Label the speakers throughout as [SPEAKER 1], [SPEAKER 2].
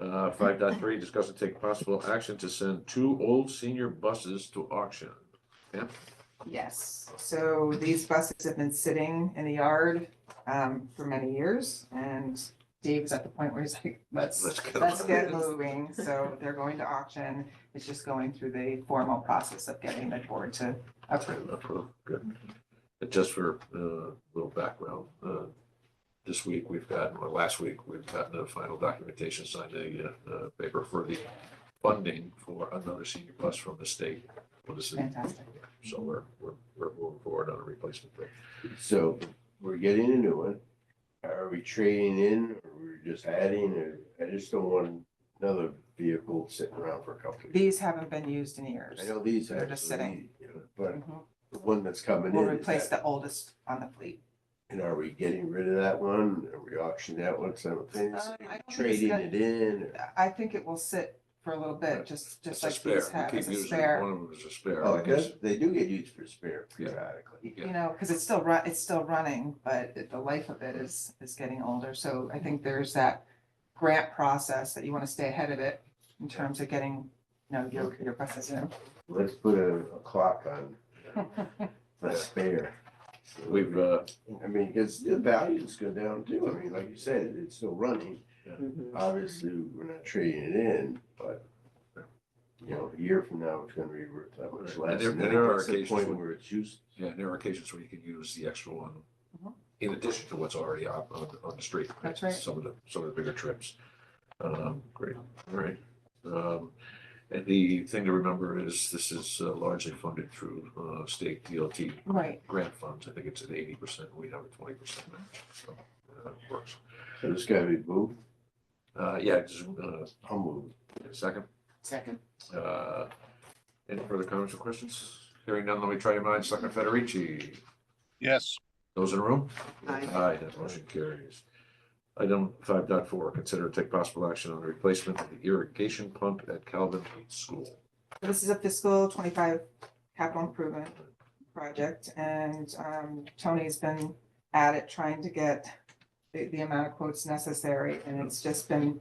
[SPEAKER 1] Uh, five dot three, discuss and take possible action to send two old senior buses to auction.
[SPEAKER 2] Yes, so these buses have been sitting in the yard um for many years and Dave's at the point where he's like, let's,
[SPEAKER 1] Let's go.
[SPEAKER 2] let's get moving. So they're going to auction. It's just going through the formal process of getting the board to approve.
[SPEAKER 1] Approved, good. And just for uh, a little background, uh, this week we've got, or last week, we've gotten the final documentation, signed a uh, uh, paper for the funding for another senior bus from the state. for the city.
[SPEAKER 2] Fantastic.
[SPEAKER 1] So we're, we're, we're moving forward on a replacement there.
[SPEAKER 3] So we're getting a new one. Are we trading in or we're just adding or I just don't want another vehicle sitting around for a couple of years.
[SPEAKER 2] These haven't been used in years.
[SPEAKER 3] I know these
[SPEAKER 2] They're just
[SPEAKER 3] actually, but
[SPEAKER 2] Mhm.
[SPEAKER 3] the one that's coming
[SPEAKER 2] We'll
[SPEAKER 3] in, is
[SPEAKER 2] replace
[SPEAKER 3] that-
[SPEAKER 2] the oldest on the fleet.
[SPEAKER 3] and are we getting rid of that one? Are we auctioning that one
[SPEAKER 2] Uh,
[SPEAKER 3] simultaneously?
[SPEAKER 2] I don't think it's
[SPEAKER 3] Trading
[SPEAKER 2] got-
[SPEAKER 3] it in? or-
[SPEAKER 2] I think it will sit for a little bit, just
[SPEAKER 1] It's
[SPEAKER 2] just
[SPEAKER 1] a
[SPEAKER 2] like these
[SPEAKER 1] spare.
[SPEAKER 2] have
[SPEAKER 1] We
[SPEAKER 2] as
[SPEAKER 1] keep
[SPEAKER 2] a
[SPEAKER 1] using it. One
[SPEAKER 2] spare.
[SPEAKER 1] of them is a spare.
[SPEAKER 3] Oh, I guess they do get used for spare periodically.
[SPEAKER 2] You know, because it's still run, it's still running, but it- the life of it is is getting older. So I think there's that grant process that you want to stay ahead of it in terms of getting, you know, your your buses in.
[SPEAKER 3] Let's put a a clock on the spare. So-
[SPEAKER 1] We've, uh,
[SPEAKER 3] I mean, because the values go down too. I mean, like you said, it's still running.
[SPEAKER 1] Yeah.
[SPEAKER 3] Mm-hmm. Obviously, we're not trading it in, but you know, a year from now, it's gonna be worth that much
[SPEAKER 1] Right.
[SPEAKER 3] less.
[SPEAKER 1] And there-
[SPEAKER 3] And then
[SPEAKER 1] there are
[SPEAKER 3] it gets to the
[SPEAKER 1] occasions
[SPEAKER 3] Point
[SPEAKER 1] when-
[SPEAKER 3] where it's used.
[SPEAKER 1] yeah, there are occasions where you can use the extra one
[SPEAKER 2] Mhm.
[SPEAKER 1] in addition to what's already up on, on the street.
[SPEAKER 2] That's right.
[SPEAKER 1] Some of the, some of the bigger trips. Um, great, all right. Um, and the thing to remember is this is uh, largely funded through, uh, state DLT
[SPEAKER 2] Right,
[SPEAKER 1] grant funds. I think it's at eighty percent. We have a twenty percent match. So, uh, it works.
[SPEAKER 3] So it's gotta be moved,
[SPEAKER 1] Uh, yeah, just, uh,
[SPEAKER 3] I'll move.
[SPEAKER 1] second.
[SPEAKER 2] second.
[SPEAKER 1] Uh, Any further comments or questions? Hearing none, let me try your minds. Selectman Federici,
[SPEAKER 4] yes,
[SPEAKER 1] those in the room?
[SPEAKER 2] Aye.
[SPEAKER 1] that motion carries. Item five dot four, consider and take possible action on the replacement of the irrigation pump at Calvin School.
[SPEAKER 2] This is a fiscal twenty-five capital improvement project, and um, Tony's been at it trying to get the, the amount of quotes necessary, and it's just been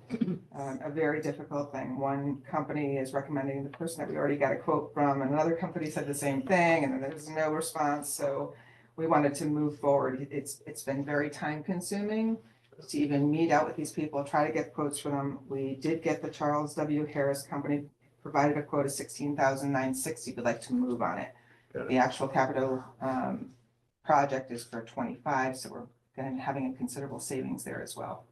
[SPEAKER 2] um, a very difficult thing. One company is recommending the person that we already got a quote from, and another company said the same thing, and then there was no response, so we wanted to move forward. It's, it's been very time-consuming to even meet out with these people, try to get quotes from them. We did get the Charles W. Harris Company provided a quote of sixteen thousand nine sixty, we'd like to move on it.
[SPEAKER 1] Got it.
[SPEAKER 2] The actual capital um project is for twenty-five, so we're gonna be having a considerable savings there as well.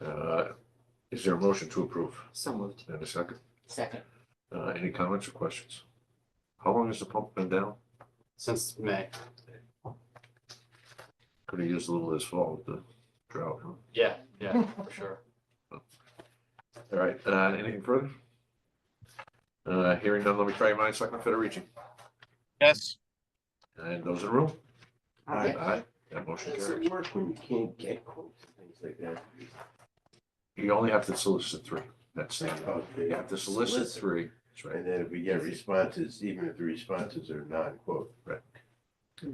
[SPEAKER 1] Uh, Is there a motion to approve?
[SPEAKER 5] So moved.
[SPEAKER 1] And a second,
[SPEAKER 5] Second.
[SPEAKER 1] Uh, any comments or questions? How long has the pump been down?
[SPEAKER 5] Since May.
[SPEAKER 1] Could have used a little this fall with the drought. huh?
[SPEAKER 5] Yeah, yeah, for sure.
[SPEAKER 1] All right, uh, anything further? Uh, hearing none, let me try your minds, Selectman Federici,
[SPEAKER 4] yes,
[SPEAKER 1] and those in the room?
[SPEAKER 2] Uh,
[SPEAKER 1] Aye, that motion
[SPEAKER 3] Does
[SPEAKER 1] carries.
[SPEAKER 3] it work when you can't get quotes and things like that?
[SPEAKER 1] You only have to solicit three, that's it.
[SPEAKER 3] Okay.
[SPEAKER 1] You have to solicit three, that's right.
[SPEAKER 3] And then if we get responses, even if the responses are non-quote.
[SPEAKER 1] Right.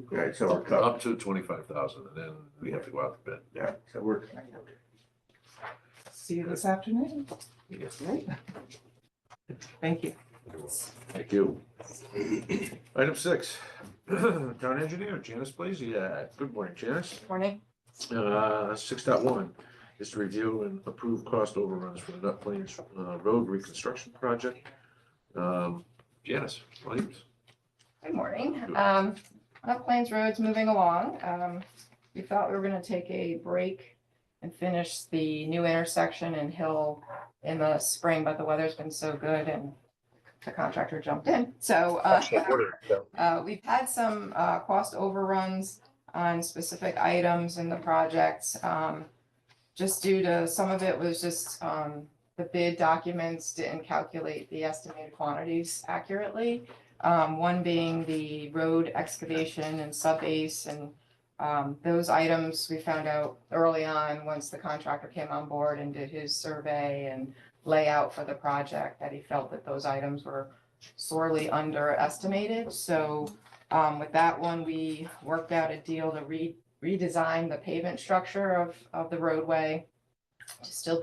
[SPEAKER 3] Right, so we're covered.
[SPEAKER 1] Up to twenty-five thousand, and then we have to go out to bid.
[SPEAKER 3] Yeah, so we're.
[SPEAKER 2] See you this afternoon.
[SPEAKER 1] Yes.
[SPEAKER 2] Great. Thank you.
[SPEAKER 1] Thank you. Item six, town engineer Janice Blazey, good morning, Janice.
[SPEAKER 6] Morning.
[SPEAKER 1] Uh, six dot one is to review and approve cost overruns for the Nut Plains uh, Road reconstruction project. Um, Janice, Williams.
[SPEAKER 6] Good morning.
[SPEAKER 1] Good.
[SPEAKER 6] Um, North Plains Road's moving along. Um, we thought we were gonna take a break and finish the new intersection and hill in the spring, but the weather's been so good and the contractor jumped in. So, uh, uh, we've had some, uh, cost overruns on specific items in the project. Um, just due to, some of it was just, um, the bid documents didn't calculate the estimated quantities accurately. Um, one being the road excavation and subbase and, um, those items we found out early on, once the contractor came on board and did his survey and layout for the project, that he felt that those items were sorely underestimated. So, um, with that one, we worked out a deal to re- redesign the pavement structure of, of the roadway to still be